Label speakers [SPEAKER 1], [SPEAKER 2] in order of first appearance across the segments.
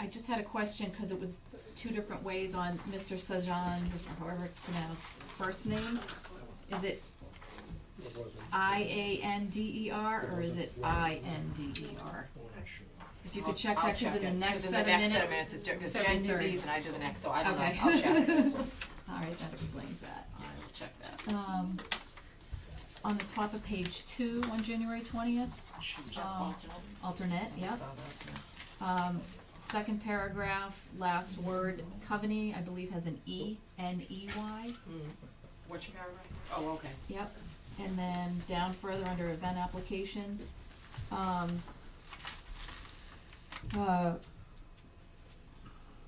[SPEAKER 1] I just had a question, because it was two different ways on Mr. Sajan's, or however it's pronounced, first name. Is
[SPEAKER 2] It
[SPEAKER 1] it
[SPEAKER 2] wasn't.
[SPEAKER 1] I A N D E R, or is it I N D E R? If you could check that, because in the next set of minutes.
[SPEAKER 3] I'll check it, 'cause in the next set of minutes, it's, because Jen did
[SPEAKER 1] 73rd.
[SPEAKER 3] these and I did the next, so I don't know,
[SPEAKER 1] Okay.
[SPEAKER 3] I'll check.
[SPEAKER 1] All right, that explains that.
[SPEAKER 3] I'll check that.
[SPEAKER 1] Um, on the top of page two, on January twentieth, um, alternate,
[SPEAKER 3] I
[SPEAKER 1] yep.
[SPEAKER 3] saw that,
[SPEAKER 1] Um, second paragraph, last word, Coveney, I believe, has an E, N E Y.
[SPEAKER 3] yeah. Mm. Which paragraph? Oh, okay.
[SPEAKER 1] Yep, and then down further under event application, um, uh,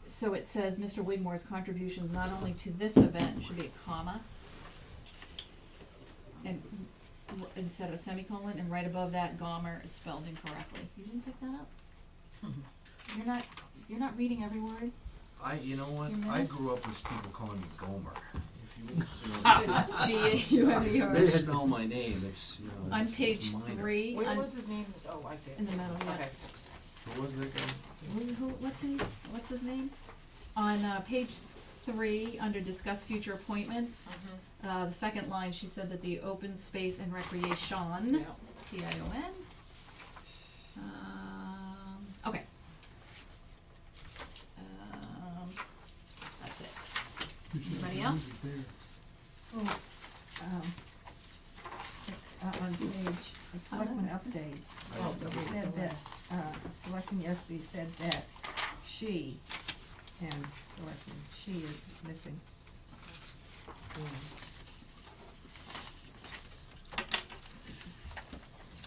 [SPEAKER 1] so it says Mr. Wigmore's contributions not only to this event, should be a comma. And, w- instead of a semicolon, and right above that, Gomer is spelled incorrectly, you didn't pick that up?
[SPEAKER 3] Hmm.
[SPEAKER 1] You're not, you're not reading every word,
[SPEAKER 4] I, you know what?
[SPEAKER 1] Your
[SPEAKER 4] I
[SPEAKER 1] minutes?
[SPEAKER 4] grew up with people calling me Gomer. If you, you know,
[SPEAKER 1] so it's G A U M E R.
[SPEAKER 4] they spell my name. It's you know.
[SPEAKER 1] On
[SPEAKER 4] it's-
[SPEAKER 1] page
[SPEAKER 4] it's minor.
[SPEAKER 1] three,
[SPEAKER 3] Where
[SPEAKER 1] on-
[SPEAKER 3] was his name? It's- Oh, I see it.
[SPEAKER 1] in the middle, yeah.
[SPEAKER 3] Okay.
[SPEAKER 4] What was that guy?
[SPEAKER 1] Who- who- what's his, what's his name? On, uh, page three, under discuss future appointments, uh, the second line, she said that the open space and recreation,
[SPEAKER 3] Yeah.
[SPEAKER 1] T I O N. Um, okay. Um, that's it. Anybody else?
[SPEAKER 5] um, uh, on
[SPEAKER 6] Oh,
[SPEAKER 5] page, a selectman update,
[SPEAKER 4] Oh, that
[SPEAKER 5] it
[SPEAKER 4] was-
[SPEAKER 5] said that, uh, selectman yesterday said that she, and selectman, she is missing.
[SPEAKER 6] Mm.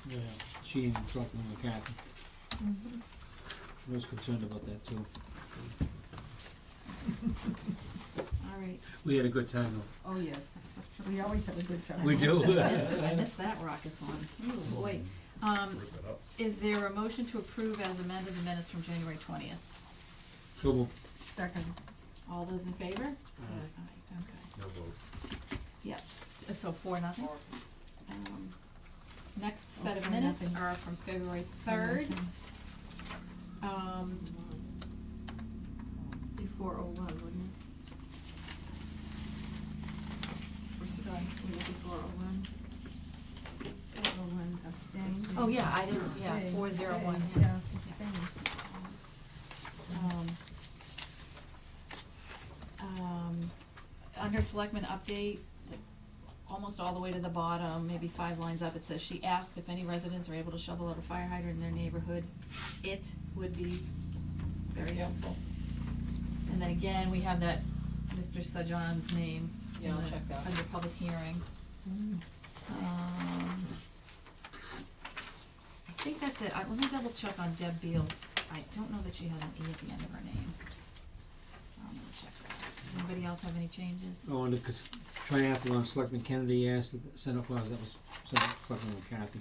[SPEAKER 2] Yeah, she and something with Kathy.
[SPEAKER 1] Mm-hmm.
[SPEAKER 2] I was concerned about that too.
[SPEAKER 1] All right,
[SPEAKER 7] We had a good time though.
[SPEAKER 5] Oh, yes, we always have a good time.
[SPEAKER 7] We do.
[SPEAKER 1] I missed, I missed that raucous one, ooh, boy. Um,
[SPEAKER 4] Rip it up.
[SPEAKER 1] is there a motion to approve as amended the minutes from January twentieth?
[SPEAKER 7] So we'll
[SPEAKER 5] Second,
[SPEAKER 1] All those in favor?
[SPEAKER 5] Uh,
[SPEAKER 1] Aye, okay.
[SPEAKER 4] No vote.
[SPEAKER 1] Yep, s- so four, nothing.
[SPEAKER 3] Or-
[SPEAKER 1] Um, Next set of
[SPEAKER 5] Okay,
[SPEAKER 1] minutes
[SPEAKER 5] nothing.
[SPEAKER 1] are from February third. Um,
[SPEAKER 6] Before oh one, wouldn't
[SPEAKER 1] I'm sorry,
[SPEAKER 6] it? Would it be four oh one?
[SPEAKER 5] everyone abstained.
[SPEAKER 1] oh yeah, I didn't, yeah,
[SPEAKER 5] Abstained,
[SPEAKER 1] four zero one,
[SPEAKER 5] abstained,
[SPEAKER 1] yeah.
[SPEAKER 5] Yeah, abstained.
[SPEAKER 1] Um, um, under selectmen update, like, almost all the way to the bottom, maybe five lines up, it says, she asked if any residents are able to shovel out a fire hydrant in their neighborhood. It would be very helpful. And then again, we have that Mr. Sajan's name. in
[SPEAKER 3] Yeah, I'll
[SPEAKER 1] the-
[SPEAKER 3] check that.
[SPEAKER 1] Under public hearing.
[SPEAKER 5] Mm.
[SPEAKER 1] Um, I think that's it. I, let me double check on Deb Beals. I don't know that she has an E at the end of her name. I'm gonna check that. Does anybody else have any changes?
[SPEAKER 7] go on to cons- triathlon. uh, Selectman Kennedy asked to send out flowers. That was sent out Selectman Kathy.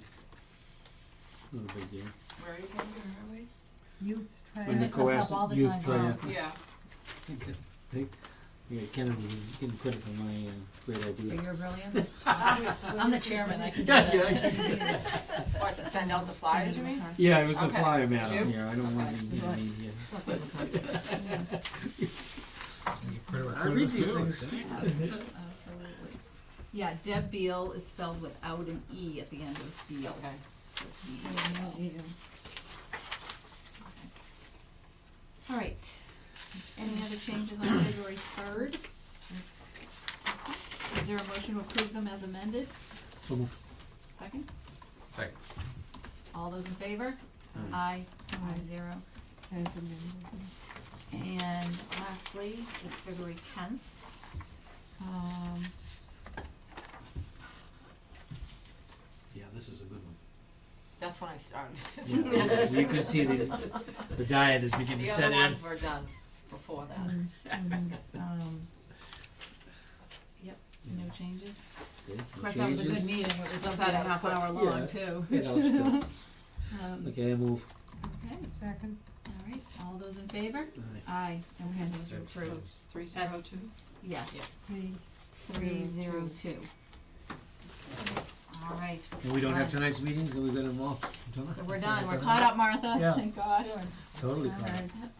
[SPEAKER 7] Not a big deal.
[SPEAKER 3] Where are you from, where
[SPEAKER 5] Youth
[SPEAKER 7] And the
[SPEAKER 1] makes us
[SPEAKER 5] trial,
[SPEAKER 1] up all
[SPEAKER 7] coastal
[SPEAKER 1] the
[SPEAKER 7] youth
[SPEAKER 1] time,
[SPEAKER 7] triathlon.
[SPEAKER 1] huh?
[SPEAKER 3] are we? Yeah.
[SPEAKER 7] They- Yeah, Kennedy, he's getting credit for my uh, great
[SPEAKER 1] For
[SPEAKER 7] idea.
[SPEAKER 1] your brilliance? I'm the chairman, I can do that.
[SPEAKER 3] What, to send out the flyers, you mean?
[SPEAKER 7] Yeah, it was
[SPEAKER 3] a
[SPEAKER 7] a
[SPEAKER 3] Okay. flyer
[SPEAKER 7] flyer
[SPEAKER 3] matter.
[SPEAKER 7] madam.
[SPEAKER 3] You?
[SPEAKER 7] Yeah, I don't want to be
[SPEAKER 5] Right.
[SPEAKER 7] mean here.
[SPEAKER 4] I read these things.
[SPEAKER 1] Absolutely. Yeah, Deb Beal is spelled without an E at the end of Beal.
[SPEAKER 3] Okay.
[SPEAKER 5] Yeah, no, yeah.
[SPEAKER 1] All right. Any other changes on February third? Is there a motion to approve them as amended?
[SPEAKER 7] So moved.
[SPEAKER 1] Second?
[SPEAKER 4] Second.
[SPEAKER 1] All those in favor? Aye, five zero.
[SPEAKER 5] as amended.
[SPEAKER 1] And lastly, is February tenth. Um,
[SPEAKER 7] Yeah, this is a good one.
[SPEAKER 3] That's when I started this.
[SPEAKER 7] You can see the, the diet is beginning
[SPEAKER 3] The
[SPEAKER 7] to set
[SPEAKER 3] other
[SPEAKER 7] in.
[SPEAKER 3] ones were done before that.
[SPEAKER 1] um, yep, no changes.
[SPEAKER 7] See,
[SPEAKER 1] Of
[SPEAKER 7] no
[SPEAKER 1] course, that was a good
[SPEAKER 7] changes.
[SPEAKER 1] meeting, it was about
[SPEAKER 3] Yeah,
[SPEAKER 1] a
[SPEAKER 3] it was
[SPEAKER 1] half hour
[SPEAKER 7] quick.
[SPEAKER 1] long
[SPEAKER 7] Yeah.
[SPEAKER 1] too.
[SPEAKER 7] It helps too.
[SPEAKER 1] Um,
[SPEAKER 7] Okay, I move.
[SPEAKER 1] okay,
[SPEAKER 5] Second,
[SPEAKER 1] all right, all those in favor?
[SPEAKER 7] Aye.
[SPEAKER 1] Aye, okay, those are
[SPEAKER 3] So
[SPEAKER 1] approved,
[SPEAKER 3] it's three zero two?
[SPEAKER 1] yes,
[SPEAKER 5] three.
[SPEAKER 1] three zero two. All right,
[SPEAKER 7] And we don't have
[SPEAKER 1] Right.
[SPEAKER 7] tonight's meetings, and we've got them all.
[SPEAKER 1] so we're done, we're caught up, Martha,
[SPEAKER 7] Yeah.
[SPEAKER 1] thank God.
[SPEAKER 7] Totally caught up.
[SPEAKER 5] Alright.